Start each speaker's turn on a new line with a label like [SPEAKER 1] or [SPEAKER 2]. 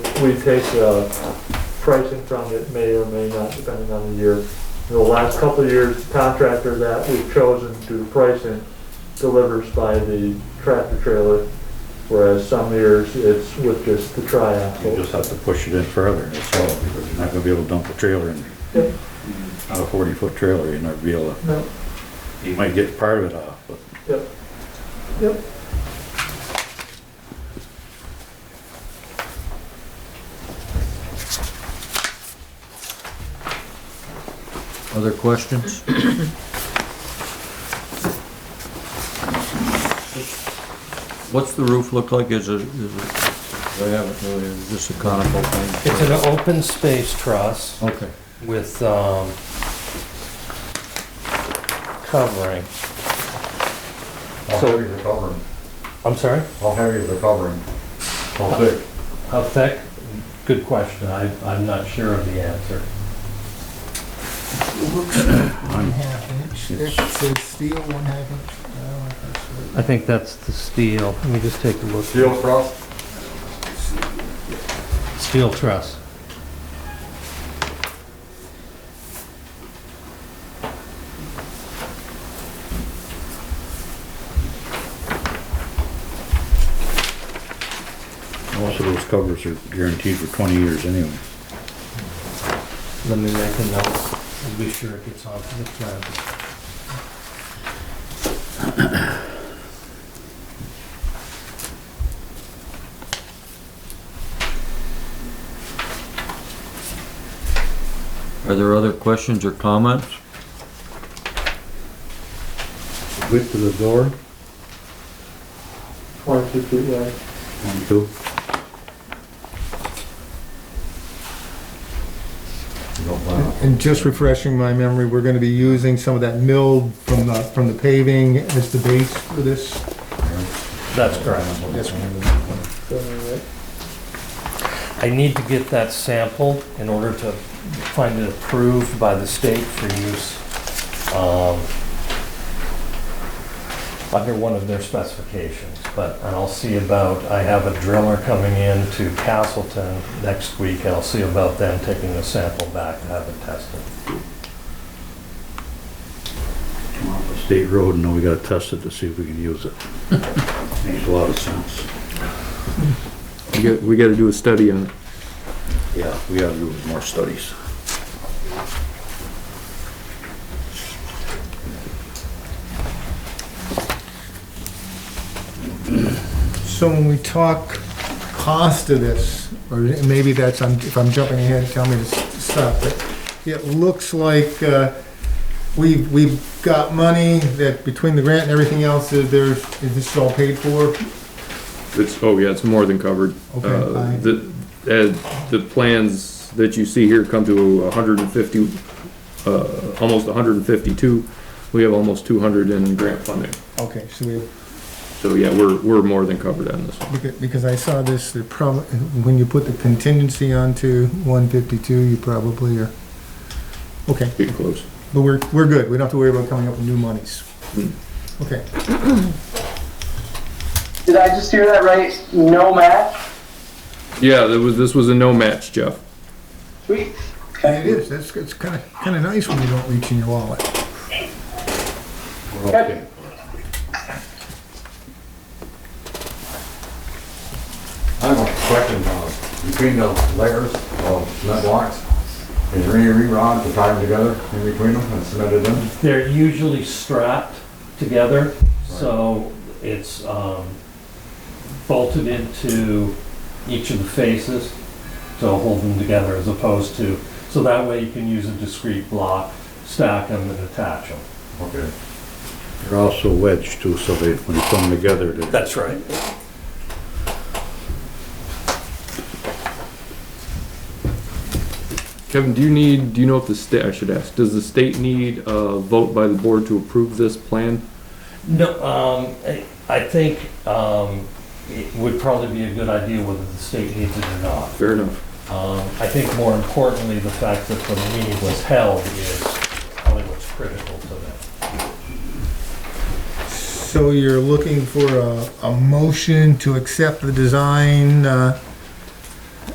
[SPEAKER 1] we take uh, pricing from it, may or may not, depending on the year. In the last couple of years, the contractor that we've chosen to do pricing delivers by the tractor trailer, whereas some years it's with just the
[SPEAKER 2] You
[SPEAKER 1] triaxle.
[SPEAKER 2] just have to push it in further, that's all, because you're not gonna be able to dump a trailer in.
[SPEAKER 1] Yep.
[SPEAKER 2] Not a forty foot trailer, you're not gonna be able to,
[SPEAKER 1] No,
[SPEAKER 2] you might get part of it off, but
[SPEAKER 1] Yep, yep.
[SPEAKER 3] Other questions? What's the roof look like? Is it, is it, I haven't really, is this a conical thing?
[SPEAKER 4] It's an open space truss
[SPEAKER 3] Okay,
[SPEAKER 4] with, um, covering.
[SPEAKER 5] How heavy is the covering?
[SPEAKER 4] I'm sorry?
[SPEAKER 5] How heavy is the covering? How thick?
[SPEAKER 4] How thick? Good question. I, I'm not sure of the answer.
[SPEAKER 6] One half inch, it says steel, one half inch. I don't know if that's right.
[SPEAKER 4] I think that's the steel. Let me just take a look.
[SPEAKER 5] Steel truss?
[SPEAKER 4] Steel truss.
[SPEAKER 2] most of those covers are guaranteed for twenty years anyway.
[SPEAKER 4] Let me make a note. I'll be sure it gets onto the plan.
[SPEAKER 3] are there other questions or comments?
[SPEAKER 2] Width of the door,
[SPEAKER 1] Twenty-two feet wide.
[SPEAKER 2] one, two,
[SPEAKER 6] And just refreshing my memory, we're gonna be using some of that milled from the, from the paving as the base for this.
[SPEAKER 4] That's correct.
[SPEAKER 1] so, right?
[SPEAKER 4] I need to get that sample in order to find it approved by the state for use um, under one of their specifications. But and I'll see about, I have a driller coming in to Castleton next week, and I'll see about them taking a sample back to have it tested.
[SPEAKER 2] come off a state road, and then we gotta test it to see if we can use it. Makes a lot of sense.
[SPEAKER 7] We got, we gotta do a study on it.
[SPEAKER 2] Yeah, we gotta do more studies.
[SPEAKER 6] So when we talk cost of this, or maybe that's, I'm- if I'm jumping ahead, tell me to s- stop, but it looks like uh, we've, we've got money that between the grant and everything else, that there's, is this all paid for?
[SPEAKER 7] It's, oh yeah, it's more than covered.
[SPEAKER 6] Okay,
[SPEAKER 7] Uh,
[SPEAKER 6] fine.
[SPEAKER 7] The, uh, the plans that you see here come to hundred and fifty, uh, almost hundred and fifty-two. We have almost two hundred in grant funding.
[SPEAKER 6] Okay, so we,
[SPEAKER 7] So yeah, we're, we're more than covered on this one.
[SPEAKER 6] Because- Because I saw this, the prob- when you put the contingency onto one fifty-two, you probably are, okay,
[SPEAKER 7] Get close.
[SPEAKER 6] but we're, we're good, we don't have to worry about coming up with new monies. Okay,
[SPEAKER 8] Did I just hear that right? No match?
[SPEAKER 7] Yeah, that was, this was a no match, Jeff.
[SPEAKER 8] Sweet.
[SPEAKER 6] and it is, that's, it's kinda, kinda nice when you don't reach in your wallet.
[SPEAKER 2] We're okay.
[SPEAKER 5] I have a question, uh, between the layers of cement blocks, is there any re-rod to tie them together in between them and cement it in?
[SPEAKER 4] They're usually strapped together, so it's um, bolted into each of the faces to hold them together as opposed to, so that way you can use a discrete block, stack them and attach them.
[SPEAKER 5] Okay.
[SPEAKER 2] They're also wedged too, so they, when they come together, they
[SPEAKER 4] That's right.
[SPEAKER 7] Kevin, do you need, do you know if the state, I should ask, does the state need a vote by the board to approve this plan?
[SPEAKER 4] No, um, I- I think um, it would probably be a good idea whether the state needs it or not.
[SPEAKER 7] Fair enough.
[SPEAKER 4] Um, I think more importantly, the fact that the meeting was held is probably what's critical to that.
[SPEAKER 6] So you're looking for a, a motion to accept the design, uh,